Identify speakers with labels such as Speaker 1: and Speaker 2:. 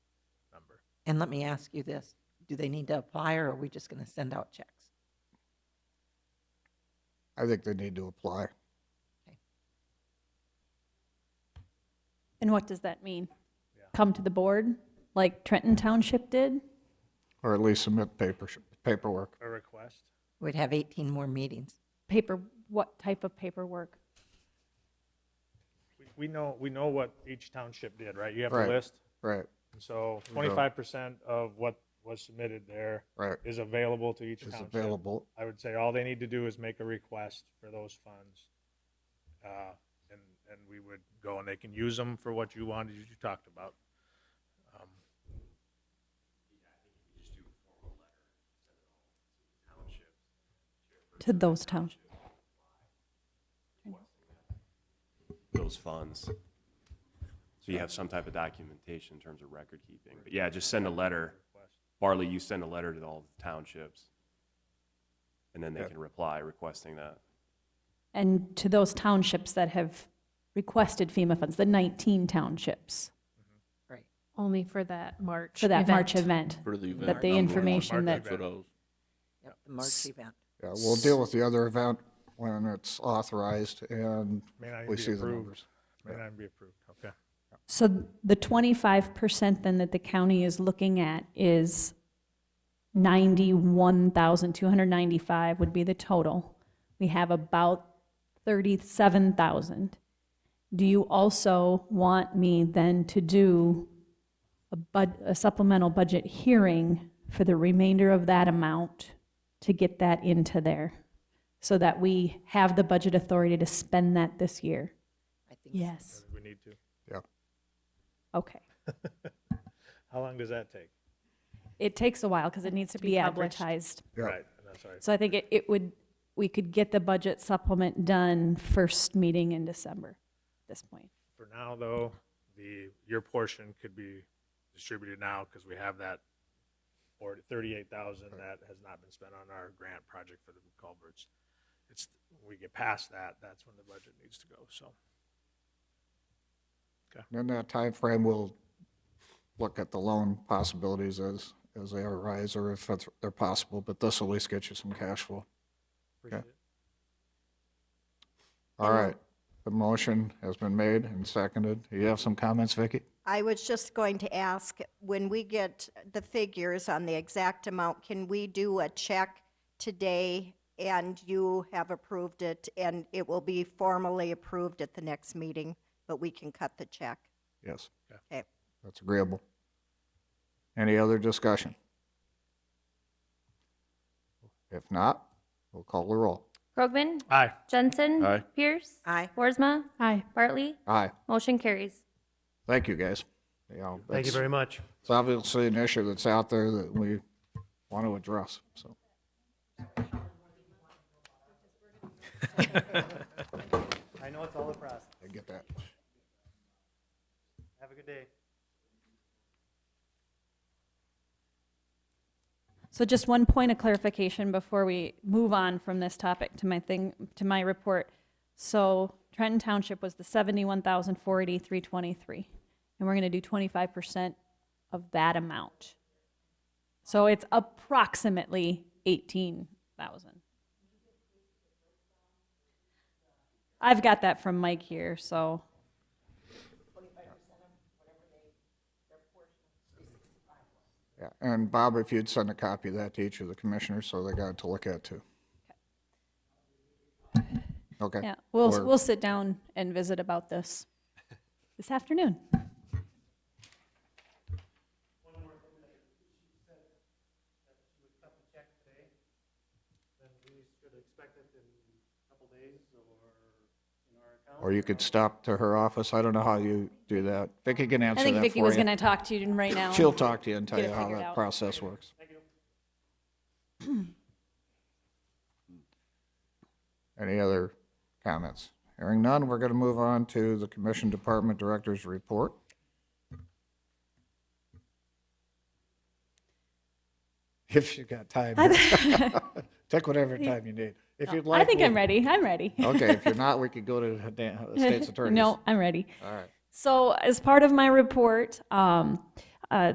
Speaker 1: And let me ask you this, do they need to apply or are we just going to send out checks?
Speaker 2: I think they need to apply.
Speaker 3: And what does that mean? Come to the board, like Trenton Township did?
Speaker 2: Or at least submit paper, paperwork.
Speaker 4: a request.
Speaker 1: We'd have 18 more meetings.
Speaker 3: Paper, what type of paperwork?
Speaker 4: We- We know, we know what each township did, right? You have a
Speaker 2: Right.
Speaker 4: list.
Speaker 2: Right,
Speaker 4: And so twenty-five percent of what was submitted there
Speaker 2: right.
Speaker 4: is available to each
Speaker 2: It's
Speaker 4: township.
Speaker 2: available.
Speaker 4: I would say all they need to do is make a request for those funds. uh, And, and we would go and they can use them for what you wanted, you talked about. Um,
Speaker 3: To those towns?
Speaker 5: those funds. So you have some type of documentation in terms of record keeping. But yeah, just send a letter. Barley, you send a letter to all the townships. And then they can reply requesting that.
Speaker 3: And to those townships that have requested FEMA funds, the 19 townships
Speaker 1: Right.
Speaker 6: Only for that March.
Speaker 3: for that March event?
Speaker 7: For the event.
Speaker 3: That the
Speaker 7: number.
Speaker 3: information
Speaker 4: March
Speaker 3: that,
Speaker 7: For those.
Speaker 1: Yep, the March event.
Speaker 2: Yeah, we'll deal with the other event when it's authorized and
Speaker 4: May not even
Speaker 2: we
Speaker 4: be
Speaker 2: see the
Speaker 4: approved.
Speaker 2: numbers.
Speaker 4: May not be approved, okay.
Speaker 3: so the 25% then that the county is looking at is 91,295 would be the total. We have about 37,000. Do you also want me then to do a bud, a supplemental budget hearing for the remainder of that amount to get that into there? So that we have the budget authority to spend that this year?
Speaker 1: I think so.
Speaker 6: Yes.
Speaker 4: We need to.
Speaker 2: Yeah,
Speaker 3: Okay.
Speaker 4: How long does that take?
Speaker 3: It takes a while because it needs to
Speaker 6: be
Speaker 3: be
Speaker 6: published.
Speaker 3: advertised.
Speaker 2: yeah,
Speaker 4: Right, and that's all right.
Speaker 3: So I think it, it would, we could get the budget supplement done first meeting in December at this point.
Speaker 4: For now, though, the, your portion could be distributed now because we have that or thirty-eight thousand that has not been spent on our grant project for the culverts. It's, when we get past that, that's when the budget needs to go, so.
Speaker 2: And In that time frame, we'll look at the loan possibilities as, as they arise or if it's- they're possible, but this will at least get you some cash flow.
Speaker 4: appreciate it.
Speaker 2: All right. The motion has been made and seconded. You have some comments, Vicky?
Speaker 8: I was just going to ask, when we get the figures on the exact amount, can we do a check today and you have approved it and it will be formally approved at the next meeting, but we can cut the check?
Speaker 2: Yes.
Speaker 8: Okay.
Speaker 2: That's agreeable. Any other discussion? If not, we'll call the roll.
Speaker 9: Krogman?
Speaker 4: Aye.
Speaker 9: Jensen?
Speaker 7: Aye.
Speaker 9: Pierce?
Speaker 1: Aye.
Speaker 9: Worsma?
Speaker 6: Aye.
Speaker 9: Bartley?
Speaker 2: Aye.
Speaker 9: Motion carries.
Speaker 2: Thank you, guys. Thank you very
Speaker 4: much.
Speaker 2: It's obviously an issue that's out there that we want to address, so.
Speaker 10: I know it's all a process.
Speaker 2: I get that.
Speaker 10: Have a good day.
Speaker 3: So just one point of clarification before we move on from this topic to my thing, to my report. So Trenton Township was the seventy-one thousand four eighty-three twenty-three, and we're gonna do twenty-five percent of that amount. So it's approximately eighteen thousand. I've got that from Mike here, so.
Speaker 2: Yeah, and Bob, if you'd send a copy of that to each of the commissioners, so they got it to look at too. Okay.
Speaker 3: Yeah, we'll,
Speaker 2: Or-
Speaker 3: we'll sit down and visit about this this afternoon.
Speaker 2: Or you could stop to her office. I don't know how you do that. Vicky can answer
Speaker 3: I
Speaker 2: that for you.
Speaker 3: think Vicky was gonna talk to you right now.
Speaker 2: She'll talk to you and tell
Speaker 3: Get
Speaker 2: you
Speaker 3: it
Speaker 2: how
Speaker 3: figured
Speaker 2: that
Speaker 3: out.
Speaker 2: process works. Any other comments? Hearing none, we're going to move on to the Commission Department Director's Report. If you got time, take whatever time you need. If you'd like.
Speaker 3: I think I'm
Speaker 2: we-
Speaker 3: ready. I'm ready.
Speaker 2: Okay, if you're not, we could go to the da- Oh, state's attorney.
Speaker 3: No, I'm ready.
Speaker 2: All right.
Speaker 3: So, as part of my report, um,